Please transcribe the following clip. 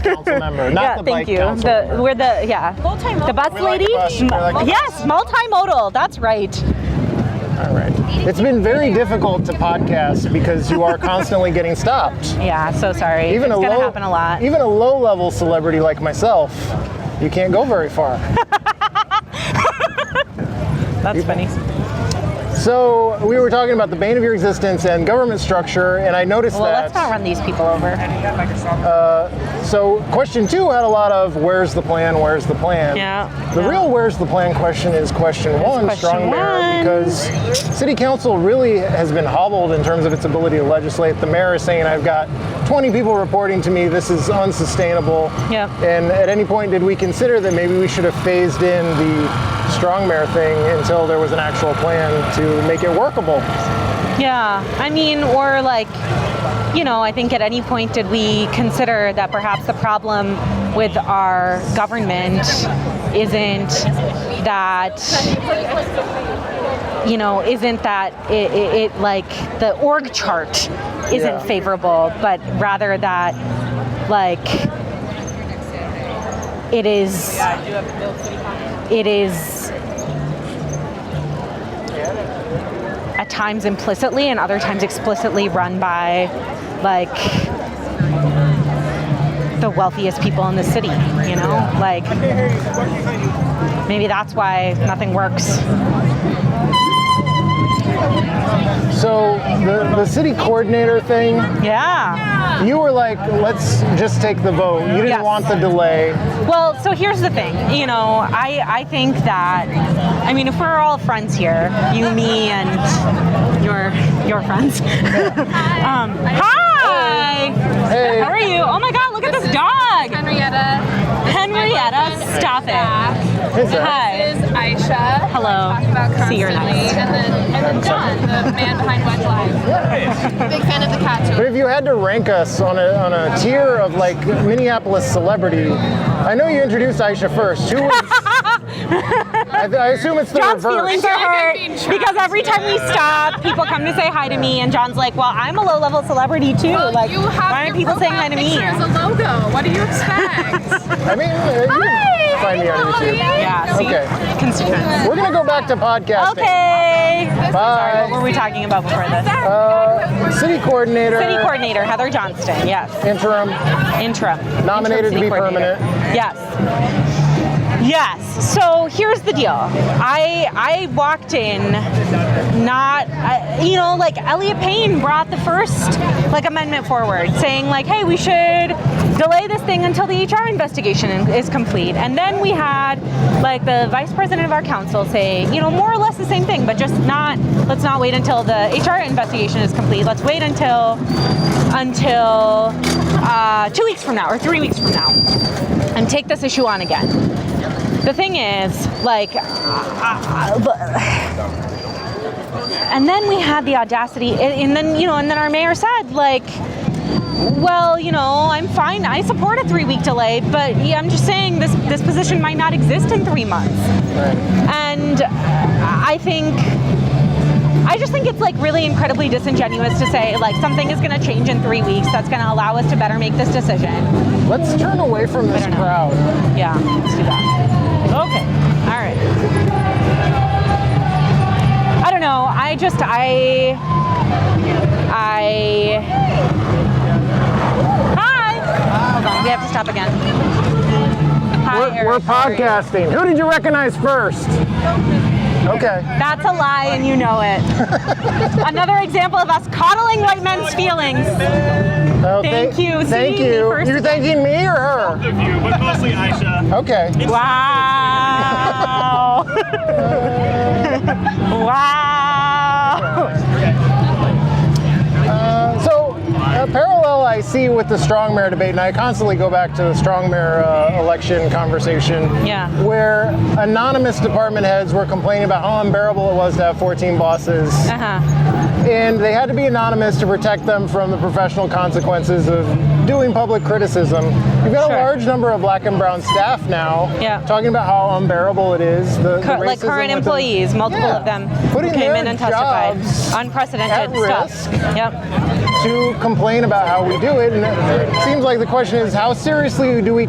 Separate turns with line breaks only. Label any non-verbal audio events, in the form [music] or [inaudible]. council member, not
yeah,
the
thank
bike
you.
council
The-
member.
we're the yeah. The bus
We like
lady.
the bus, we like the
yes, multimodal. That's right.
All right. It's been very difficult to podcast because you are constantly getting stopped.
Yeah. So sorry.
Even
it's
a
gonna
low,
happen a lot.
Even a low-level celebrity like myself, you can't go very far.
[laughs] That's funny.
so we were talking about the bane of your existence and government structure, and I noticed
Well,
that.
let's not run these people over.
So question two had a lot of where's the plan, where's the plan.
Yeah,
The
yeah.
real where's the plan question is question one,
question
Strong Mayor,
one.
because city council really has been hobbled in terms of its ability to legislate. The mayor is saying, I've got 20 people reporting to me, this is unsustainable.
Yeah.
And at any point, did we consider that maybe we should have phased in the Strong Mayor thing until there was an actual plan to make it workable?
Yeah. I mean, or like, you know, I think at any point did we consider that perhaps the problem with our government isn't that you know isn't that it, it, it like the org chart isn't
Yeah.
favorable but rather that like it is it is at times implicitly and other times explicitly run by like the wealthiest people in the city, you know? Like maybe that's why nothing works.
So the, the city coordinator thing,
Yeah.
You were like, let's just take the vote. You didn't
Yes.
want the delay.
Well, so here's the thing. You know, I I think that I mean, if we're all friends here, you, me and your your friends. [laughs] um, hi.
Hey.
How are you? Oh my god, look at this dog.
Henrietta.
Henrietta, stop it.
It's all right.
Hi.
This is Aisha.
Hello.
Talking about
See,
constantly.
you're nice.
And then, and then John, the man behind Wedge Live. Big fan of the cat
But
too.
if you had to rank us on a, on a tier of like Minneapolis celebrity, I know you introduced Aisha first. Who was,
[laughs]
I, I assume it's the
John's
reverse.
feelings are
I feel like I'm
hurt
being trapped.
because every time we stop, people come to say hi to me, and John's like, "Well, I'm a low-level celebrity too.
Well,
like,
you have
why aren't
your
people saying hi
profile
to me?"
picture as a logo. What do you expect?
I mean, uh, you can find me on YouTube.
Yeah. See,
Okay.
constituents.
We're gonna go back to podcasting.
Okay. Sorry, what
Bye.
were we talking about before this?
Uh, city coordinator.
City coordinator Heather Johnston. Yes.
Interim.
Interim.
Nominated
Interim
to be
city coordinator.
permanent.
Yes. Yes. So here's the deal. I I walked in, not uh, you know like Elliot Payne brought the first like amendment forward, saying like, hey, we should delay this thing until the HR investigation is complete. And then we had like the vice president of our council say, you know, more or less the same thing, but just not. Let's not wait until the HR investigation is complete. Let's wait until until uh, two weeks from now or three weeks from now and take this issue on again. The thing is, like, I- I- but- and then we had the audacity, and and then, you know, and then our mayor said, like, well, you know, I'm fine. I support a three-week delay, but yeah, I'm just saying this this position might not exist in three months. And I think I just think it's like really incredibly disingenuous to say like something is going to change in three weeks that's going to allow us to better make this decision.
Let's turn away from this
don't know.
crowd.
Yeah, let's do that. Okay. All right. I don't know. I just I I Hi. Hold on. We have to stop again. Hi,
We're,
Eric,
we're
how are you?
podcasting. Who did you recognize first? Okay.
That's a lie and you know
[laughs]
it. Another example of us coddling white men's feelings.
Oh,
Thank
thank-
you. See,
Thank
me
you.
first
You're thanking me or her?
of you, but mostly Aisha.
Okay.
Wow. [laughs] wow.
So, a parallel I see with the strong mayor debate, and I constantly go back to the strong mayor uh, election conversation,
Yeah.
where anonymous department heads were complaining about how unbearable it was to have 14 bosses,
Uh-huh.
and they had to be anonymous to protect them from the professional consequences of doing public criticism. You've got
Sure.
a large number of black and brown staff now
Yeah.
talking about how unbearable it is. The, the
Cur- like
racism
current
within-
employees, multiple
Yeah.
of them
Putting
who came
their
in and testified.
jobs
Unprecedented
at
stuff.
risk.
Yep.
to complain about how we do it. And it seems like the question is, how seriously do we